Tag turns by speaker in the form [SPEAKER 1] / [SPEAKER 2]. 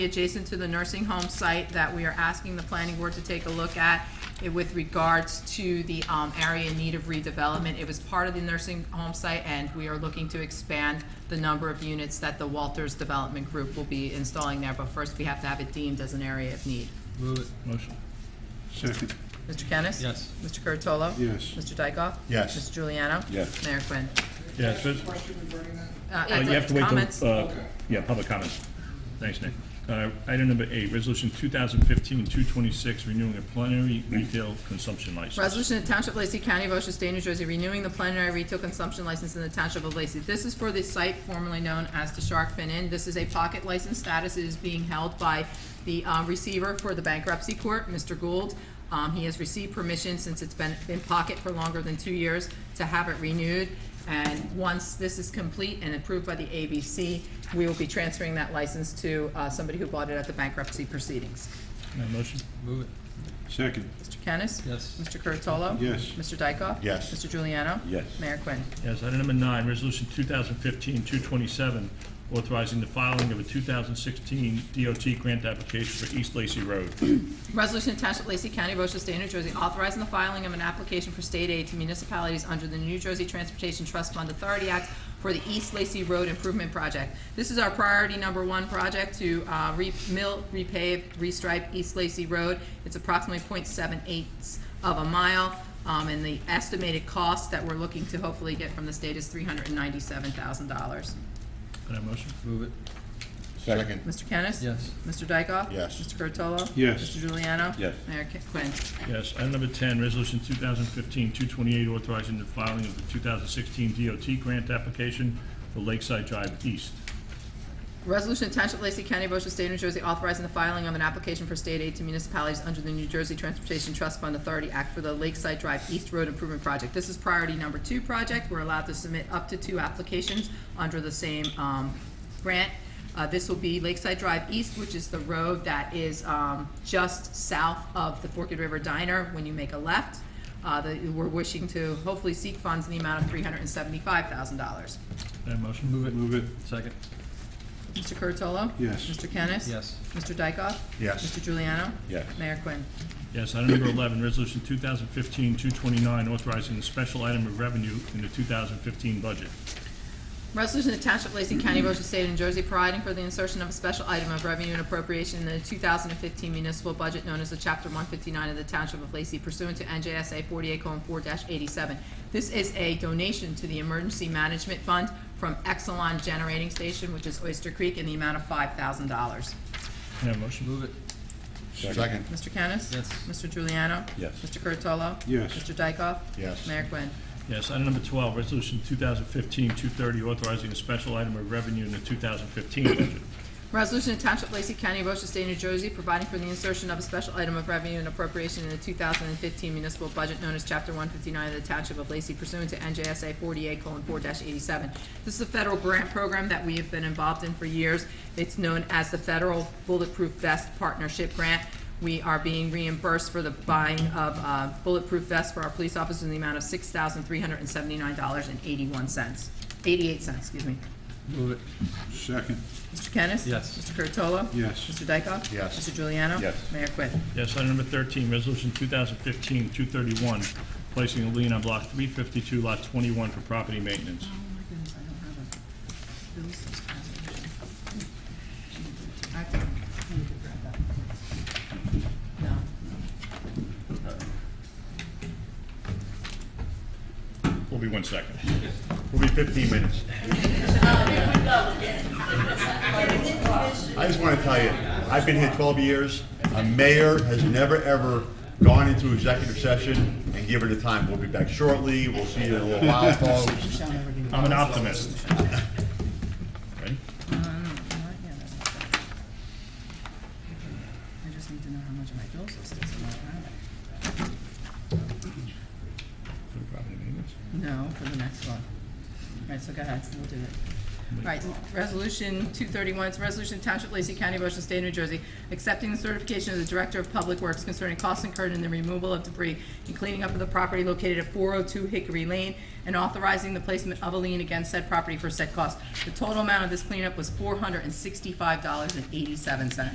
[SPEAKER 1] adjacent to the nursing home site that we are asking the planning board to take a look at eh, with regards to the um, area in need of redevelopment. It was part of the nursing home site, and we are looking to expand the number of units that the Walters Development Group will be installing there, but first we have to have it deemed as an area of need.
[SPEAKER 2] Move it. Motion.
[SPEAKER 3] Second.
[SPEAKER 1] Mr. Kennis?
[SPEAKER 2] Yes.
[SPEAKER 1] Mr. Curatolo?
[SPEAKER 3] Yes.
[SPEAKER 1] Mr. Dykoff?
[SPEAKER 3] Yes.
[SPEAKER 1] Mr. Juliano?
[SPEAKER 3] Yes.
[SPEAKER 1] Mayor Quinn.
[SPEAKER 4] Yeah, so it's-
[SPEAKER 5] Question regarding that?
[SPEAKER 1] Uh,
[SPEAKER 4] uh, you have to wait
[SPEAKER 1] comments?
[SPEAKER 4] till, uh, yeah, public comments. Thanks, Nick. Uh, Item number eight, resolution 2015-226, renewing a plenary retail consumption license.
[SPEAKER 1] Resolution of Township of Lacey County, Ocean State, New Jersey, renewing the plenary retail consumption license in the Township of Lacey. This is for the site formerly known as the Shark Fin Inn. This is a pocket license status. It is being held by the uh, receiver for the bankruptcy court, Mr. Gould. Um, He has received permission, since it's been in pocket for longer than two years, to have it renewed. And once this is complete and approved by the ABC, we will be transferring that license to uh, somebody who bought it at the bankruptcy proceedings.
[SPEAKER 4] Can I have a motion?
[SPEAKER 2] Move it.
[SPEAKER 3] Second.
[SPEAKER 1] Mr. Kennis?
[SPEAKER 2] Yes.
[SPEAKER 1] Mr. Curatolo?
[SPEAKER 3] Yes.
[SPEAKER 1] Mr. Dykoff?
[SPEAKER 3] Yes.
[SPEAKER 1] Mr. Juliano?
[SPEAKER 3] Yes.
[SPEAKER 1] Mayor Quinn.
[SPEAKER 4] Yes, item number nine, resolution 2015-227, authorizing the filing of a 2016 DOT grant application for East Lacey Road.
[SPEAKER 1] Resolution attached to Lacey County, Ocean State, New Jersey, authorizing the filing of an application for state aid to municipalities under the New Jersey Transportation Trust Fund Authority Act for the East Lacey Road Improvement Project. This is our priority number one project to uh, re- mill, repave, restripe East Lacey Road. It's approximately 0.78 of a mile, um, and the estimated cost that we're looking to hopefully get from the state is three hundred and ninety-seven thousand dollars.
[SPEAKER 4] Can I have a motion?
[SPEAKER 2] Move it.
[SPEAKER 3] Second.
[SPEAKER 1] Mr. Kennis?
[SPEAKER 2] Yes.
[SPEAKER 1] Mr. Dykoff?
[SPEAKER 3] Yes.
[SPEAKER 1] Mr. Curatolo?
[SPEAKER 3] Yes.
[SPEAKER 1] Mr. Juliano?
[SPEAKER 3] Yes.
[SPEAKER 1] Mayor Ki- Quinn.
[SPEAKER 4] Yes, item number 10, resolution 2015-228, authorizing the filing of the 2016 DOT grant application for Lakeside Drive East.
[SPEAKER 1] Resolution of Township of Lacey County, Ocean State, New Jersey, authorizing the filing of an application for state aid to municipalities under the New Jersey Transportation Trust Fund Authority Act for the Lakeside Drive East Road Improvement Project. This is priority number two project. We're allowed to submit up to two applications under the same um, grant. Uh, This will be Lakeside Drive East, which is the road that is um, just south of the Forked River Diner when you make a left. Uh, That we're wishing to hopefully seek funds in the amount of $375,000.
[SPEAKER 4] Can I have a motion?
[SPEAKER 2] Move it.
[SPEAKER 3] Move it.
[SPEAKER 2] Second.
[SPEAKER 1] Mr. Curatolo?
[SPEAKER 3] Yes.
[SPEAKER 1] Mr. Kennis?
[SPEAKER 2] Yes.
[SPEAKER 1] Mr. Dykoff?
[SPEAKER 3] Yes.
[SPEAKER 1] Mr. Juliano?
[SPEAKER 3] Yes.
[SPEAKER 1] Mayor Quinn.
[SPEAKER 4] Yes, item number 11, resolution 2015-229, authorizing the special item of revenue in the 2015 budget.
[SPEAKER 1] Resolution to Township of Lacey County, Ocean State, New Jersey, providing for the insertion of a special item of revenue and appropriation in the 2015 municipal budget known as the Chapter 159 of the Township of Lacey pursuant to NJSA 48:4-87. This is a donation to the Emergency Management Fund from Exelon Generating Station, which is Oyster Creek, in the amount of $5,000.
[SPEAKER 4] Can I have a motion?
[SPEAKER 2] Move it.
[SPEAKER 3] Second.
[SPEAKER 1] Mr. Kennis?
[SPEAKER 2] Yes.
[SPEAKER 1] Mr. Juliano?
[SPEAKER 3] Yes.
[SPEAKER 1] Mr. Curatolo?
[SPEAKER 3] Yes.
[SPEAKER 1] Mr. Dykoff?
[SPEAKER 3] Yes.
[SPEAKER 1] Mayor Quinn.
[SPEAKER 4] Yes, item number 12, resolution 2015-230, authorizing a special item of revenue in the 2015 budget.
[SPEAKER 1] Resolution to Township of Lacey County, Ocean State, New Jersey, providing for the insertion of a special item of revenue and appropriation in the 2015 municipal budget known as Chapter 159 of the Township of Lacey pursuant to NJSA 48:4-87. This is a federal grant program that we have been involved in for years. It's known as the Federal Bulletproof Vest Partnership Grant. We are being reimbursed for the buying of uh, bulletproof vests for our police officers in the amount of $6,379.81, 88 cents, excuse me.
[SPEAKER 2] Move it.
[SPEAKER 3] Second.
[SPEAKER 1] Mr. Kennis?
[SPEAKER 2] Yes.
[SPEAKER 1] Mr. Curatolo?
[SPEAKER 3] Yes.
[SPEAKER 1] Mr. Dykoff?
[SPEAKER 3] Yes.
[SPEAKER 1] Mr. Juliano?
[SPEAKER 3] Yes.
[SPEAKER 1] Mayor Quinn.
[SPEAKER 4] Yes, item number 13, resolution 2015-231, placing a lien on block 352, lot 21 for property maintenance.
[SPEAKER 1] Oh, my goodness, I don't have a bill subscription. I can, I need to grab that. No.
[SPEAKER 4] We'll be one second. We'll be 15 minutes.
[SPEAKER 6] I just want to tell you, I've been here 12 years. A mayor has never, ever gone into executive session and given the time. We'll be back shortly. We'll see you in a little while, folks.
[SPEAKER 4] I'm an optimist. Ready?
[SPEAKER 1] I just need to know how much of my bill subscription I
[SPEAKER 4] For property maintenance?
[SPEAKER 1] No, for the next one. All right, so go ahead, we'll do it. All right, resolution two thirty-one, it's a resolution of Township of Lacey County, Ocean State, New Jersey, accepting the certification of the Director of Public Works concerning costs incurred in the removal of debris and cleaning up of the property located at four oh two Hickory Lane, and authorizing the placement of a lien against said property for said cost. The total amount of this cleanup was four hundred and sixty-five dollars and eighty-seven cents.